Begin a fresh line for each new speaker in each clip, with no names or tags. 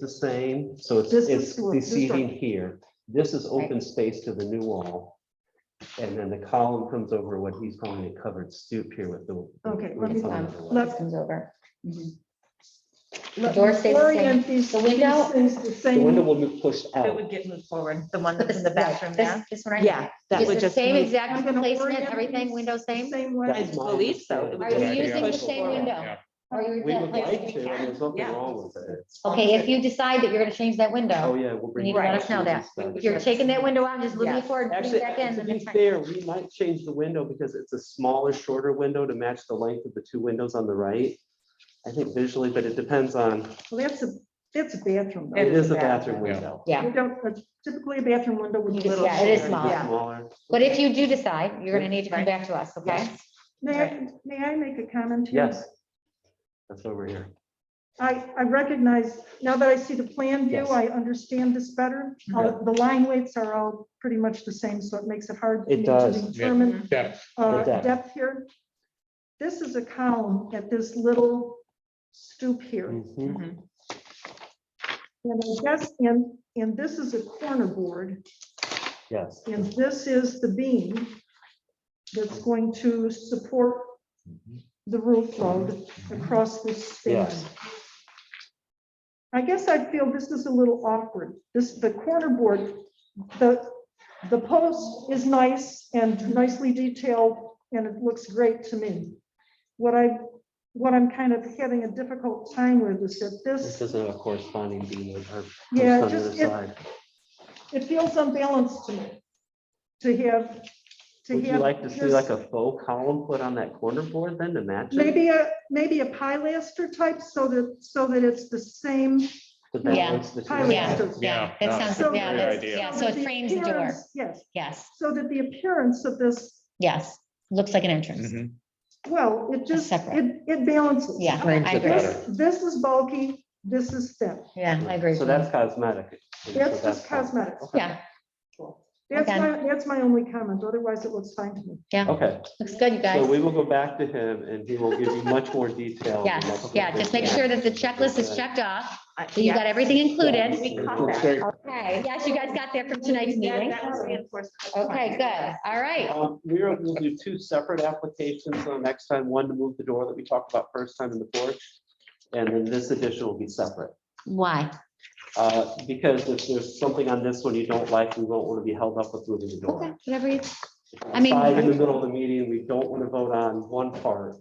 the same, so it's,
This is
it's
school
deceiving
district.
here. This is open space to the new wall. And then the column comes over what he's calling a covered stoop here with the.
Okay,
with
let me-
the column.
let-
comes over. Mhm.
Let
door
me
stays the same.
orient these-
The window-
these Things the
The window
same.
will be pushed
It
out.
would get moved forward, the one
But
that's
this
in the
right,
bathroom
this-
now.
This one right
Yeah,
here.
that
It's
would
the
just
Same
move-
I'm
exact
gonna
placement,
orient
everything,
these
window same?
Same
That's
way.
my
believe so. It would
Are
understanding.
you
Yeah,
using the
push
same
forward,
window? Or are you
We would
replacing
like
it?
to, and there's nothing
Yeah.
wrong with it.
Okay, if you decide that you're gonna change that
Oh,
window,
yeah, we'll bring.
need to let us know that. if you're taking that window out, and just moving
Yeah.
it forward, putting
Actually,
it back in.
to
then
be
that's fine.
fair, we might change the window because it's a smaller, shorter window to match the length of the two windows on the right. I think visually, but it depends on,
Well, that's a, that's a bathroom.
it
though.
It's
is a
a
bathroom
bathroom.
window.
Yeah.
You don't, that's typically a bathroom window would be
You
a
can-
little.
yeah, it is Mm-hmm.
shorter.
small.
Yeah.
Smaller.
But if you do decide, you're gonna need to come
Right.
back to us, okay?
May I, may I make a comment? here?
Yes. That's over here.
I, I recognize, now that I see the plan view,
Yes.
I understand this better. Uh,
Okay.
The line weights are all pretty much the same, so it makes it hard. for
It
me
does.
to
Yeah.
Determine
depth.
uh,
The depth.
depth here. This is a column at this little stoop here.
Mhm.
Mm-hmm.
And I guess, and, and this is a corner board,
Yes.
and this is the beam that's going to support the roof load across this span.
Yes.
I guess I feel this is a little awkward. This, the corner board, the, the post is nice and nicely detailed, and it looks great to me. What I, what I'm kind of having a difficult time with is that
This isn't a corresponding beam with her.
Yeah,
post on the other
just, it,
side.
it feels unbalanced to me. To have, to
Would you
have.
like to see
this-
like a faux column put on that corner board then to match? it?
Maybe a, maybe a pilaster type so that, so that it's the same.
The back
Yeah.
ones, the two
Yeah.
sides.
Yeah,
That
that's
sounds,
a
yeah,
great
that's-
idea.
yeah,
so
so
that
it frames the door.
appearance- Yes,
Yes,
so that the appearance of this,
yes. Looks like an entrance.
Mhm.
well, it just,
separate.
it, it balances.
Yeah,
Frames
I
it
agree.
better.
This, this is bulky, this is thin.
Yeah, I agree.
So
with
that's
you.
cosmetic. So
That's just
fine.
cosmetic.
Okay.
Yeah,
That's
Okay.
my, that's my only comment. Otherwise, it looks fine to me.
Okay.
looks good, you guys.
So we will go back to him and he will give you much more detail.
Yes, yeah, just make sure that the checklist is checked off,
I-
that you
yeah.
got everything included.
We caught that.
Okay, yes, you guys got that from tonight's
That-
meeting.
that was reinforced.
Okay, good, all right.
We are going to do two separate applications on next time, one to move the door that we talked about first time in the porch. And then this addition will be separate.
Why?
Uh, Because if there's something on this one you don't like, we won't want to be held up with moving the
Okay,
door.
whatever you, I mean-
Five in the middle of the meeting, we don't want to vote on one part.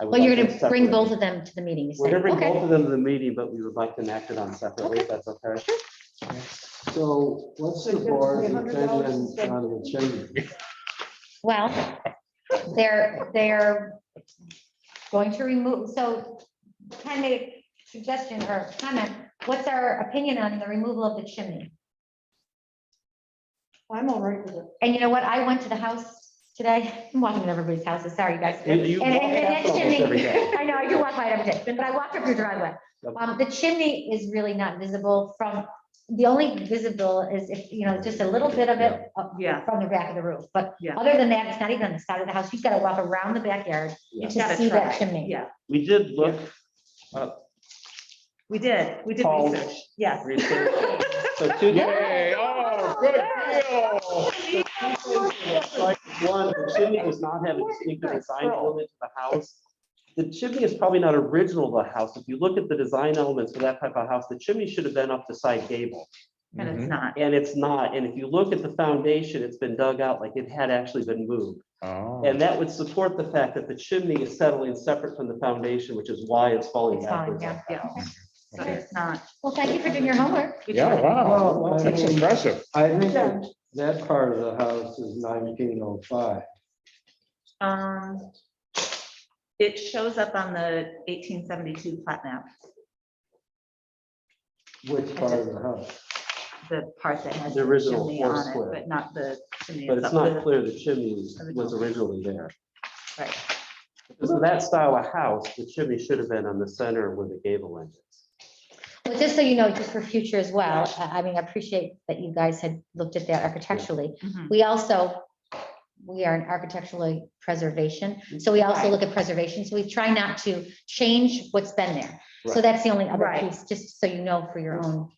I would
well, you're
like
gonna
it
bring
separate.
both of them to the meeting. you
We're gonna
said.
bring
Okay,
both of them to the meeting, but we would like them acted on separately, if that's okay.
So what's the
Like, it's
board's
$300
intent on
instead.
on the chimney?
well, they're, they're going to remove, so Ken made a suggestion or comment. What's our opinion on the removal of the chimney?
I'm all right with it.
And you know what? I went to the house today, I'm walking in everybody's houses, sorry, you guys.
And you
And,
walk
and- and
past
that
almost every
chimney,
day.
I know, I do walk by it every day, but I walked up your driveway.
Yep.
Um, the chimney is really not visible from, the only visible is if, you know, just a little bit of it up
Yeah.
from the back of the roof, but
Yeah.
other than that, it's not even on the side of the house. You've got to walk around the backyard
Yeah.
to
Gotta
see
try,
that chimney.
Yeah,
We did look
we did, we did
Paul.
research, yes.
research. So two
Yay, oh, good deal.
Like, One, the chimney does not have a distinctive design element to the house. The chimney is probably not original to the house. If you look at the design elements for that type of house, the chimney should have been up the side gable.
And it's
Mhm.
not,
And it's not. And if you look at the foundation, it's been dug out like it had actually been moved.
Oh,
And that would support the fact that the chimney is settling separate from the foundation, which is why it's falling
It's falling
backwards.
down.
yeah, so
okay.
it's not.
Well, thank you for doing your homework.
we
Yeah,
tried.
wow,
Well,
that's
I mean-
impressive.
I think that- that part of the house is nineteen oh five.
Um, it shows up on the eighteen seventy-two plat map,
Which part of the house?
the part that has
The
the
original
chimney
four
on it,
square.
but not the chimney.
But it's
itself.
not clear the chimney was originally there.
Right.
Because of that style of house, the chimney should have been on the center where the gable end is.
Well, just so you know, just for future as well, I I mean, I appreciate that you guys had looked at that architecturally.
Mhm.
We also, we are an architectural preservation, so we also
Mm. Right.
look at preservation, so we try not to change what's been there. So that's the only other
Right.
piece, just so you know for your own